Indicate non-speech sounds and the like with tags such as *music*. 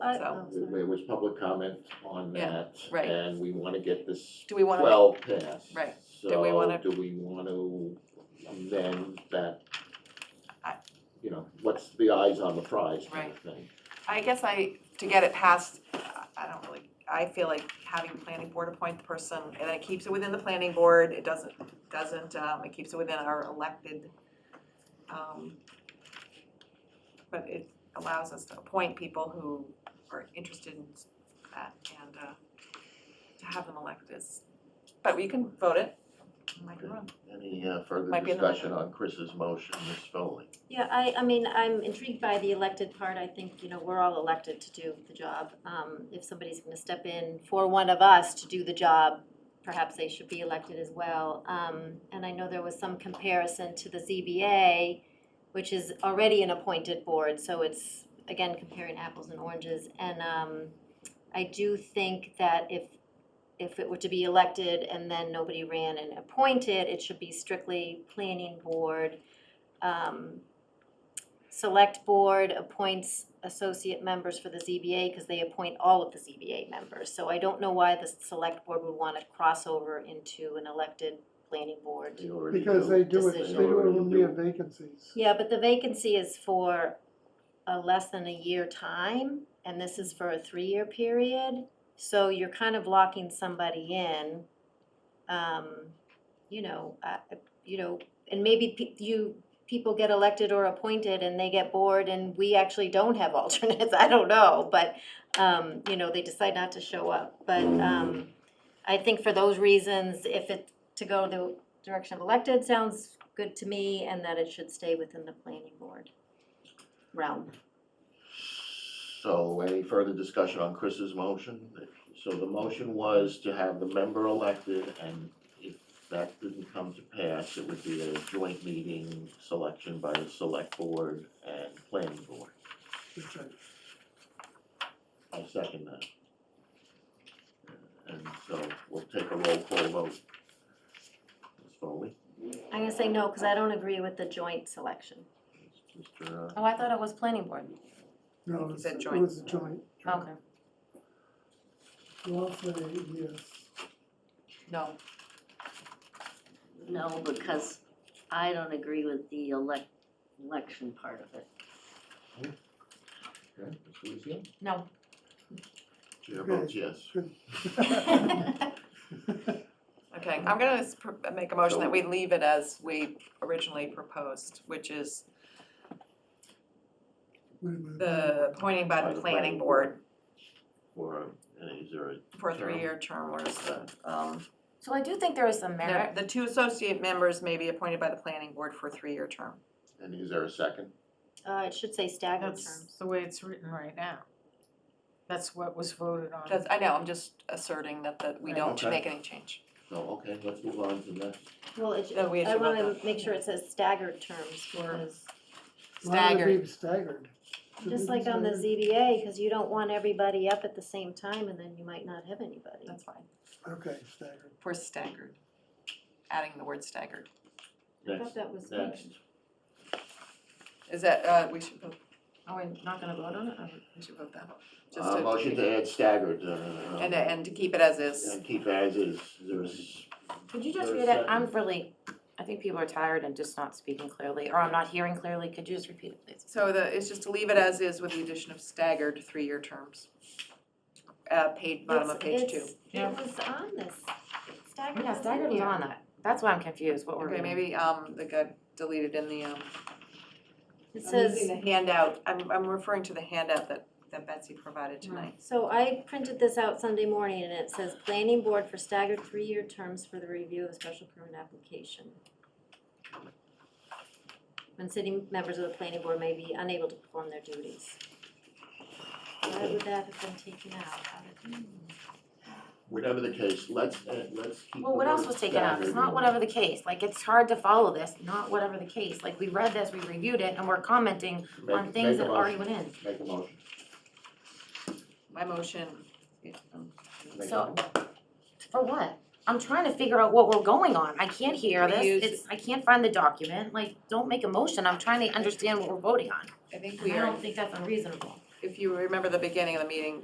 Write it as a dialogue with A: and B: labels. A: I-
B: So,
A: oh, sorry.
C: There was public comment on
B: Yeah,
C: that.
B: right.
C: And we wanna get this
B: do we wanna? make-
C: twelve passed.
B: Right. Do we wanna-
C: So do we wanna amend that?
B: I-
C: You know, what's the eyes on the prize kind
B: Right.
C: of thing?
B: I guess I, to get it passed, I- I don't really, I feel like having planning board appoint the person, and then it keeps it within the planning board, it doesn't, doesn't, um, it keeps it within our elected. um, But it allows us to appoint people who are interested in that and, uh, to have them elected. It's- But we can vote it, I'm like, "Oh,
C: Any uh, further
B: Might be in the
C: discussion on Chris's motion, Ms. Foley?
A: Yeah, I, I mean, I'm intrigued by the elected part. I think, you know, we're all elected to do the job. Um, if somebody's gonna step in for one of us to do the job, perhaps they should be elected as well. Um, and I know there was some comparison to the ZBA, which is already an appointed board, so it's, again, comparing apples and oranges. And, um, I do think that if, if it were to be elected and then nobody ran and appointed, it should be strictly planning board. Um, Select Board appoints associate members for the ZBA because they appoint all of the ZBA members. So I don't know why the Select Board would want to cross over into an elected planning board.
C: They already
D: Because they do it, they
A: Decision.
D: do it when we have
C: Already
D: vacancies.
A: Yeah, but the vacancy is for a less than a year time, and this is for a three-year period. So you're kind of locking somebody in, um, you know, uh, you know, and maybe pe- you, people get elected or appointed and they get bored and we actually don't have *laughs* alternates, I don't know, but, um, you know, they decide not to show up, but, um, I think for those reasons, if it, to go the direction of elected sounds good to me and that it should stay within the planning board realm.
C: So any further discussion on Chris's motion? So the motion was to have the member elected and if that didn't come to pass, it would be a joint meeting selection by the select board and planning board.
D: Which I-
C: I second that. And so we'll take a roll call vote. Ms. Foley,
A: I'm gonna say no, cause I don't agree with the joint selection.
C: Mr.
E: Oh, I thought it was planning board.
D: No,
B: You
D: it's-
B: said
D: it
B: joint.
D: was a joint,
B: Oh,
E: Okay.
D: well, I'll say yes. *laughs*
B: No,
F: No, because I don't agree with the elec- election part of it.
C: Uh, okay, Ms. Lucio?
B: *laughs*
E: No.
C: Chair votes yes.
B: okay, I'm gonna s- pr- make a motion that we leave it as we originally proposed, which is
D: Wait a minute.
B: the appointing by the planning board
C: Or uh, is there uh, a
B: for a three-year term, whereas the, um,
E: So I do think there is some
B: the,
E: merit.
B: the two associate members may be appointed by the planning board for a three-year term.
C: And is there a second?
A: Uh, it should say staggered
G: That's
A: terms.
G: the way it's written right now. That's what was voted on.
B: That's, I know, I'm just asserting that, that we don't
C: Okay.
B: make any change.
C: So, okay, let's move on to next.
A: Well, it,
B: No, oh, we
A: I
B: should vote
A: wanna
B: that.
A: make sure it says staggered terms because,
D: Why would it
B: Staggered.
D: be staggered? Should
A: just
D: it be
A: like on the
D: staggered?
A: ZBA, cause you don't want everybody up at the same time and then you might not have anybody.
B: That's fine.
D: Okay, staggered.
B: For staggered, adding the word staggered.
A: I
C: Next,
A: thought that was.
C: next.
B: Is that, uh, we should vote,
E: Are we not gonna vote on it? or-
B: we should vote that one. Just
C: Uh, motion to add staggered, uh.
B: And, and to keep it as is.
C: And keep as is, there's,
E: Could you just
C: There's
E: read it? I'm
C: second.
E: really, I think people are tired and just not speaking clearly, or I'm not hearing clearly. Could you just repeat it, please?
B: So the, it's just to leave it as is with the addition of staggered three-year terms. Uh, page, bottom of page
A: It's-
B: two.
A: it's-
G: Yeah.
A: It was on this, staggered.
E: Yeah,
A: was in
E: staggered was
A: here.
E: on that. That's why I'm confused, what we're
B: Okay,
E: reading.
B: maybe, um, that got deleted in the, um,
A: It
B: I'm using
A: says,
B: the handout, I'm, I'm referring to the handout that, that Betsy provided tonight.
A: so I printed this out Sunday morning and it says, planning board for staggered three-year terms for the review of special permit application. When sitting members of the planning board may be unable to perform their duties. Why would that have been taken out? How did-
C: whatever the case, let's, uh, let's keep.
E: Well,
C: the
E: what else
C: word
E: was taken out? It's
C: staggered
E: not
C: in.
E: whatever the case. Like, it's hard to follow this, not whatever the case. Like, we read this, we reviewed it, and we're commenting
C: Make-
E: on things
C: make a
E: that already
C: motion.
E: went in.
C: Make a motion.
B: My motion, um,
C: Make a
E: So-
C: motion.
E: For what? I'm trying to figure out what we're going on. I can't hear
B: We use-
E: this. It's, I can't find the document. Like, don't make a motion. I'm trying to understand what we're voting on.
B: I think
E: I
B: we are,
E: don't think that's unreasonable.
B: if you remember the beginning of the meeting,